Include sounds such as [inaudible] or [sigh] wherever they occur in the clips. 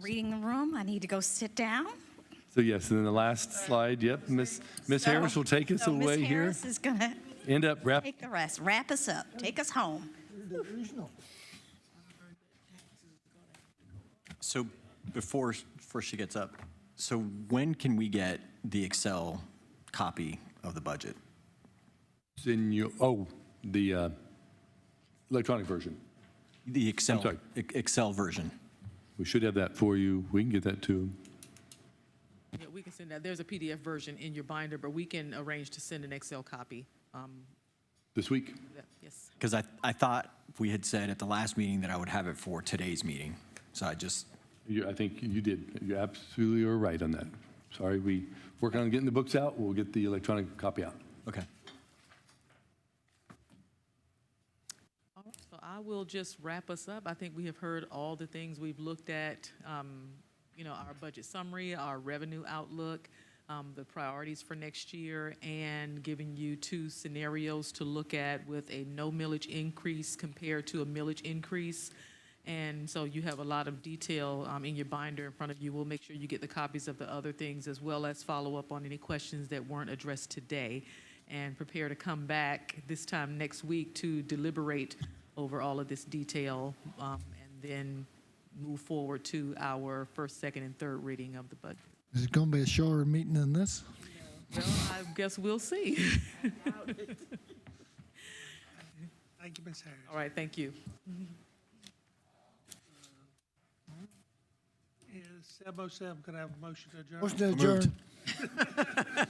reading the room. I need to go sit down. So yes, and then the last slide, yep, Miss Miss Harris will take us So Ms. away here. Harris is going to End up wrap, take the rest, wrap us up, take us home. So before, before she gets up, so when can we get the Excel copy of the budget? it's in your, oh, the uh, electronic version. The I'm Excel, sorry. E- Excel version? We should have that for you. We can get that to 'em. Yeah, we can send that. There's a PDF version in your binder, but we can arrange to send an Excel copy. Um, this week. that- Yes. Because I, I thought we had said at the last meeting that I would have it for today's meeting. So I just, You- I think you did. You absolutely are right on that. Sorry, we work on getting the books out. We'll get the electronic copy out. okay. All right, So I will just wrap us up. I think we have heard all the things we've looked at, um, you know, our budget summary, our revenue outlook, um, the priorities for next year, and giving you two scenarios to look at with a no millage increase compared to a millage increase. And so you have a lot of detail um, in your binder in front of you. We'll make sure you get the copies of the other things as well as follow up on any questions that weren't addressed today and prepare to come back this time next week to deliberate over all of this detail um, and then move forward to our first, second, and third reading of the budget. Is it going to be a shorter meeting than this? Well, I guess we'll see. [laughs] Thank you, Ms. Harris. All right, thank you. Yeah, 707, could I have a motion to adjourn? Motion to adjourn.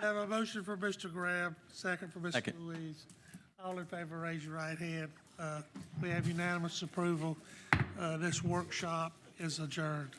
I Have a motion for Mr. Graham, second for Mr. Second. Louise. All in favor, raise your right hand. Uh, We have unanimous approval. Uh, This workshop is adjourned.